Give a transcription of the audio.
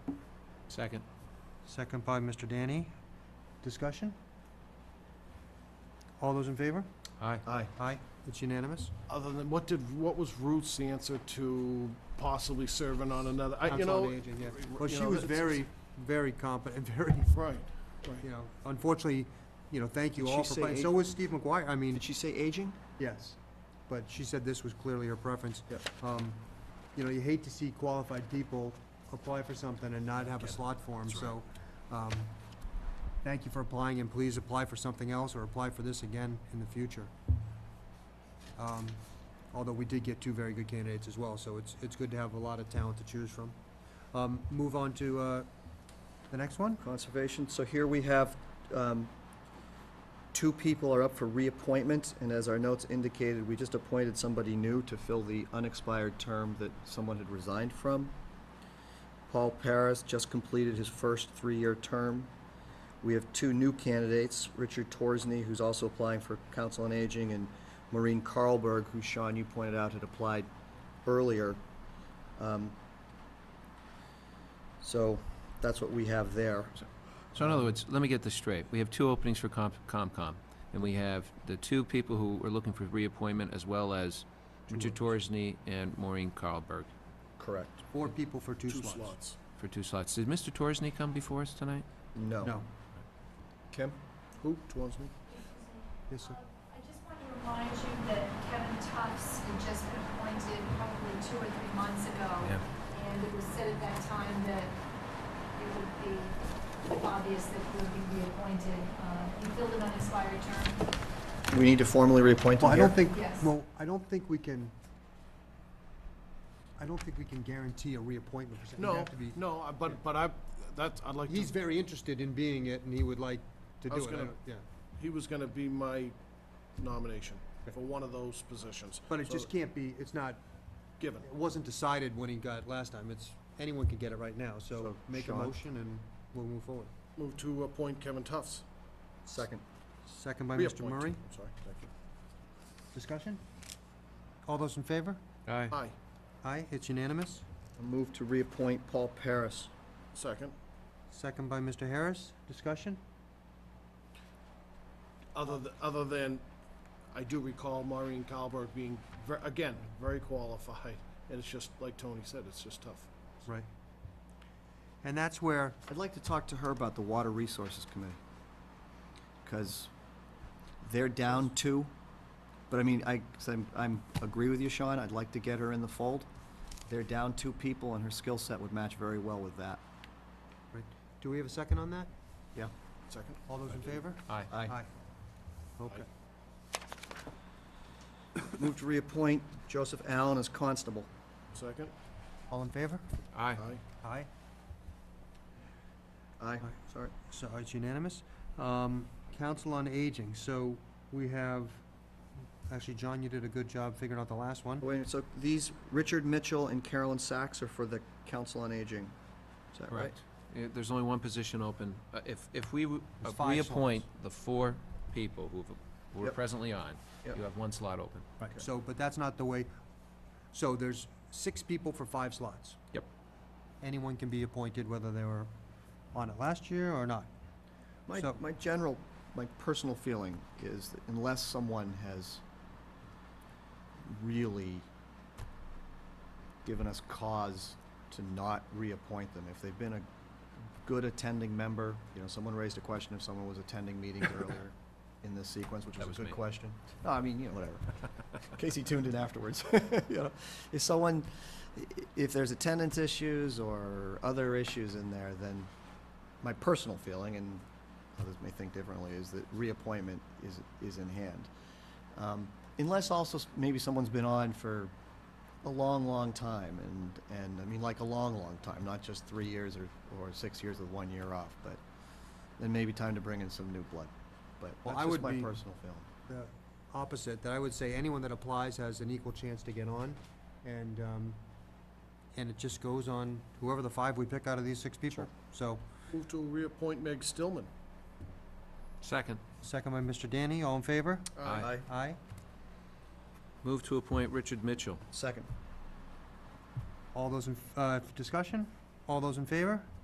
Second. Second by Mr. Danny. Discussion? All those in favor? Aye. Aye. Aye. It's unanimous. Other than, what did, what was Ruth's answer to possibly serving on another, I, you Council on know. Aging, yeah. Well, you she know, was it's- very, very competent, very, Right, you right. know, unfortunately, you know, thank you Did all she for say playing. eight? So was Steve McGuire. I mean, Did she say aging? yes. But she said this was clearly her preference. Yeah. Um, You know, you hate to see qualified people apply for something and not have a slot for them, so, um, thank you for applying, and please apply for something else or apply for this again in the future. Um, Although we did get two very good candidates as well, so it's, it's good to have a lot of talent to choose from. Um, Move on to, uh, the next one? Conservation, so here we have, um, two people are up for reappointment, and as our notes indicated, we just appointed somebody new to fill the unexpired term that someone had resigned from. Paul Paris just completed his first three-year term. We have two new candidates, Richard Torsney, who's also applying for Council on Aging, and Maureen Carlberg, who Sean, you pointed out, had applied earlier. Um, So, that's what we have there. So in other words, let me get this straight. We have two openings for Com- COMCOM, and we have the two people who are looking for reappointment, as well as Two Richard Torsney and Maureen Carlberg Correct. Four people for two slots. for two slots. Did Mr. Torsney come before us tonight? No. No. Kim? Who, Twonsney? Yes, sir. I just want to remind you that Kevin Tufts had just been appointed probably two or three months ago. And it was said at that time that it would be obvious that he would be reappointed. Uh, He filled an unexpired term. We need to formally reappoint him Well, I don't here. think, Yes. well, I don't think we can, I don't think we can guarantee a reappointment. per se. It'd No, have to be- no, I- but, but I, that's, I'd like to. He's very interested in being it, and he would like to I do it. was I gonna- don't- Yeah, He was gonna be my nomination for one of those positions. But it So, just can't be, it's not, Given. it wasn't decided when he got it last time. It's, anyone can get it right now, so So, make a Sean? motion and we'll move forward. Move to appoint Kevin Tufts. Second. Second by Mr. Reappoint. Murray. I'm sorry, thank you. Discussion? All those in favor? Aye. Aye, Aye, it's unanimous. A move to reappoint Paul Paris. second. Second by Mr. Harris. Discussion? Other, th- other than, I do recall Maureen Kalberg being, ver- again, very qualified, and it's just, like Tony said, it's just tough. Right. And that's where I'd like to talk to her about the Water Resources Committee. Because they're down two, but I mean, I, 'cause I'm, I'm, agree with you, Sean, I'd like to get her in the fold. They're down two people and her skill set would match very well with that. Right. Do we have a second on that? Yeah. Second? All those in favor? Aye. Aye. Okay. Move to reappoint Joseph Allen as constable. Second? All in favor? Aye. Aye. Aye. Aye, sorry. So it's unanimous. Um, Council on Aging, so we have, actually, John, you did a good job figuring out the last one. Wait, a minute, so these, Richard Mitchell and Carolyn Sachs are for the Council on Aging. Is that right? Correct. Yeah, There's only one position open. Uh, If, if we w- There's uh, five reappoint the four people who've, who are Yep. presently on, Yep. you have one slot open. Right. So, but that's not the way, so there's six people for five slots. Yep. Anyone can be appointed, whether they were on it last year or not. My, So- my general, my personal feeling is that unless someone has really given us cause to not reappoint them, if they've been a good attending member, you know, someone raised a question if someone was attending meetings earlier in this sequence, which That was was a good me. question. No, I mean, you know, whatever. In case he tuned in afterwards, you know. If someone, i- if there's attendance issues or other issues in there, then my personal feeling, and others may think differently, is that reappointment is, is in hand. Um, Unless also s- maybe someone's been on for a long, long time, and, and, I mean, like a long, long time, not just three years or, or six years with one year off, but then maybe time to bring in some new blood. But Well, that's I just would my be- personal feeling. the opposite, that I would say anyone that applies has an equal chance to get on, and, um, and it just goes on whoever the five we pick out of these six people. Sure. So, Move to reappoint Meg Stillman. Second, second by Mr. Danny, all in favor? Aye. Aye. move to appoint Richard Mitchell. Second. All those in, uh, discussion? All those in favor?